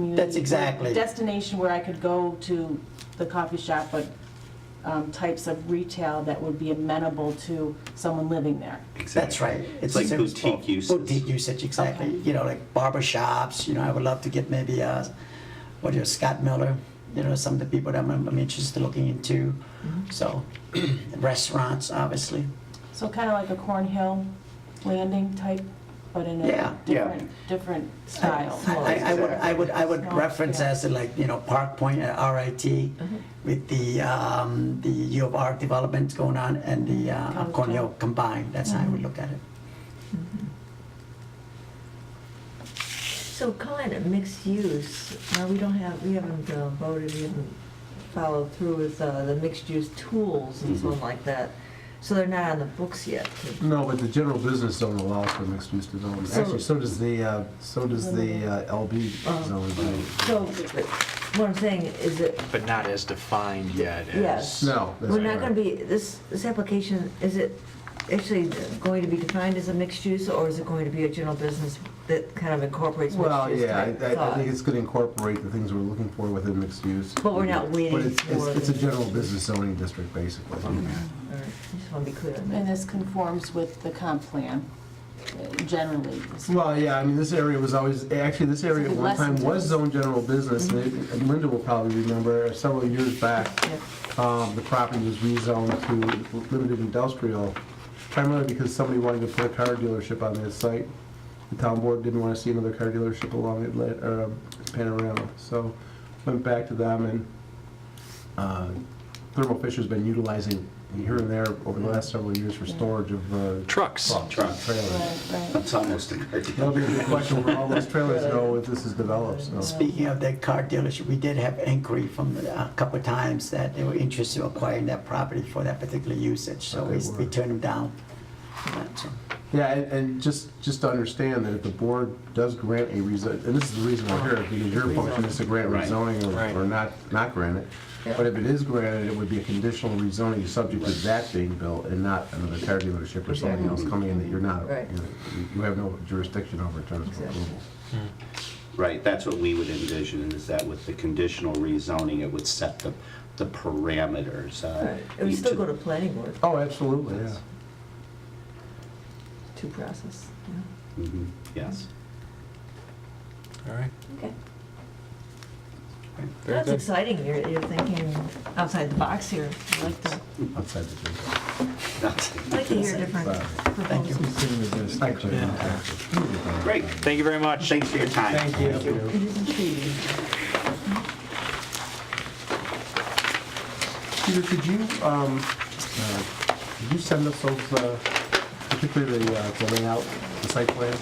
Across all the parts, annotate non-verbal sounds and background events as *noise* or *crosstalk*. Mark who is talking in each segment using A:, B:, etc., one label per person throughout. A: That's exactly-
B: Destination where I could go to the coffee shop, but um, types of retail that would be amenable to someone living there.
A: That's right.
C: It's
A: a
C: like
A: service
C: boutique
A: bar.
C: uses.
A: Boutique usage, exactly.
B: Okay.
A: You know, like barber shops, you know, I would love to get maybe, uh, what is it, Scott Miller, you know, some of the people that I'm, I'm interested in looking into. So, *clears throat* restaurants, obviously.
B: So kind of like a Cornhill Landing type, but in
A: Yeah,
B: a
A: yeah.
B: different, different style.
A: I, I would, I would, I would
B: Small,
A: reference
B: yeah.
A: as to like, you know, Park Point uh, at RIT with the, um, the U of R development going on and the, uh,
B: College
A: Cornell combined. That's how I would look at it.
D: So calling it mixed use, now we don't have, we haven't uh, voted, we haven't followed through with uh, the mixed use tools and so on like that. So they're not on the books yet.
E: No, but the general business zone allows for mixed-use development.
D: So-
E: Actually, so does the, uh, so does the uh, LB
D: Uh-huh.
E: zone.
D: So what I'm saying is that,
F: but not as defined yet
D: Yes.
F: as.
E: No. that's
D: we're not going
E: correct.
D: to be, this, this application, is it actually going to be defined as a mixed use or is it going to be a general business that kind of incorporates mixed
E: Well,
D: use
E: yeah,
D: type
E: I- I, I think
D: thought?
E: it's gonna incorporate the things we're looking for within mixed use.
D: But we're not waiting
E: But it's- it's-
D: for
E: It's a
D: the-
E: general business zoning district, basically.
D: All right, I just want to be clear on
B: And
D: that.
B: this conforms with the comp plan uh, generally.
E: Well, yeah, I mean, this area was always, actually, this area at
B: Something
E: one
B: less
E: time
B: than
E: was
B: this.
E: zoned general business.
D: Mm-hmm.
E: and Linda will probably remember, uh, several years back,
B: Yeah.
E: um, the property was rezoned to limited industrial, primarily because somebody wanted to put a car dealership on that site. The town board didn't want to see another car dealership along Atlantic, uh, Panorama, so went back to them and, uh, Thermo Fisher's been utilizing here and there over the last several years for storage of, uh.
F: Trucks.
E: Trucks, trailers.
B: Right, right.
C: It's almost a
E: That'll be a good question where all those trailers go if this is developed, so.
A: Speaking of that car dealership, we did have inquiry from uh, a couple of times that they were interested in acquiring that property for that particular usage, so we
E: Okay,
A: we
E: word.
A: turned them down. That's all.
E: Yeah, and, and just, just to understand that if the board does grant a rezon, and this is the reason we're here, because your function is to grant
C: Right.
E: rezoning
F: Right.
E: or- or not, not grant it. But if it is granted, it would be a conditional rezoning subject to that being built and not another car dealership or something else coming in that you're not,
D: Right.
E: you- you have no jurisdiction over in terms of
D: Exactly.
E: approval.
F: hmm,
C: Right, that's what we would envision, is that with the conditional rezoning, it would set the, the parameters. uh,
D: All right, It would
C: each
D: still
C: of-
D: go to planning board
E: Oh, absolutely, yeah.
D: to process. yeah.
C: Mhm, Yes.
F: All right.
D: Okay.
F: Very
D: That's
F: good.
D: exciting, you're, you're thinking outside the box here. I like to,
E: Outside the district.
D: I like to hear different
E: Sorry.
D: proposals.
E: Actually,
C: Great,
F: Thank you very much.
C: thanks for your time.
A: Thank you.
D: It is intriguing.
E: Peter, could you, um, uh, could you send us those, uh, particularly the, uh, the layout, the site plan?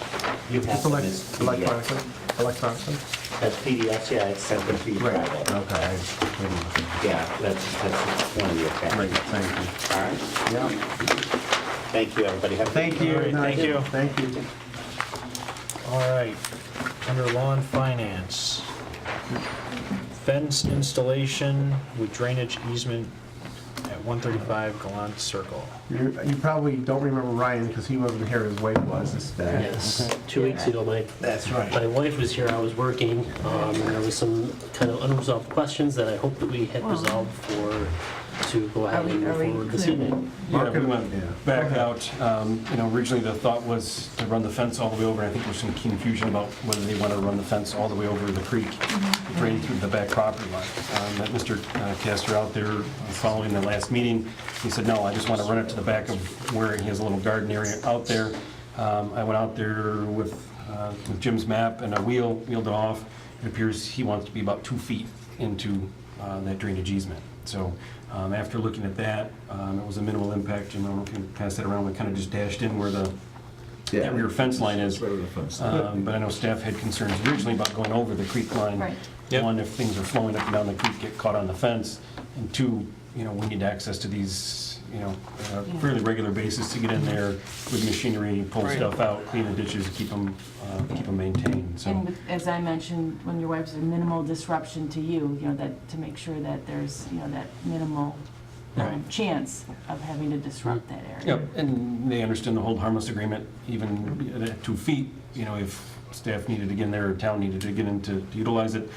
C: You have
E: Just
C: them
E: elec-
C: as
E: Electronically, electronically?
C: As PDFs, yeah, it's sent them to you
E: Right,
C: Friday.
E: okay. I-
C: Yeah, that's, that's one of your
E: Great,
C: factors.
E: thank
C: All right,
E: you. Yeah.
C: thank you, everybody. Have a good
F: Thank you.
C: night.
F: Great, thank you.
E: Thank you.
F: All right, under law and finance, fence installation with drainage easement at 135 Gallant Circle.
E: You, you probably don't remember Ryan, because he wasn't here, his wife was this day.
G: Yes, two weeks ago, my,
F: That's right.
G: my wife was here, I was working, um, and there was some kind of unresolved questions that I hope that we had
D: Wow.
G: resolved for, to go ahead
D: Are we-
G: and move
D: are we
G: forward this
D: clear?
G: evening.
H: Yeah, we
E: Yeah.
H: went back out, um, you know, originally the thought was to run the fence all the way over, I think there's some confusion about whether they want to run the fence all the way over the creek, drain through the back property line. Um, That Mr. uh, Castor out there, uh, following the last meeting, he said, no, I just want to run it to the back of where he has a little garden area out there. Um, I went out there with uh, with Jim's map and a wheel, wheeled it off, it appears he wants to be about two feet into uh, that drainage easement. So um, after looking at that, um, it was a minimal impact, and we can pass that around, we kind of just dashed in where the
E: Yeah.
H: that rear fence line is.
E: Right where the fence line.
H: Um, But I know staff had concerns originally about going over the creek line.
B: Right.
F: Yep.
H: One, if things are flowing up and down the creek, get caught on the fence, and two, you know, we need access to these, you know, uh, on a fairly regular basis to get in there with machinery, pull
F: Right.
H: stuff out, clean the ditches, keep them, keep them maintained, so.
B: And with- as I mentioned, when your wife's a minimal disruption to you, you know, that, to make sure that there's, you know, that minimal um,
H: Right.
B: chance of having to disrupt that area.
H: Yep, and they understand the hold harmless agreement, even at two feet, you know, if staff needed to get in there, or town needed to get in to utilize it,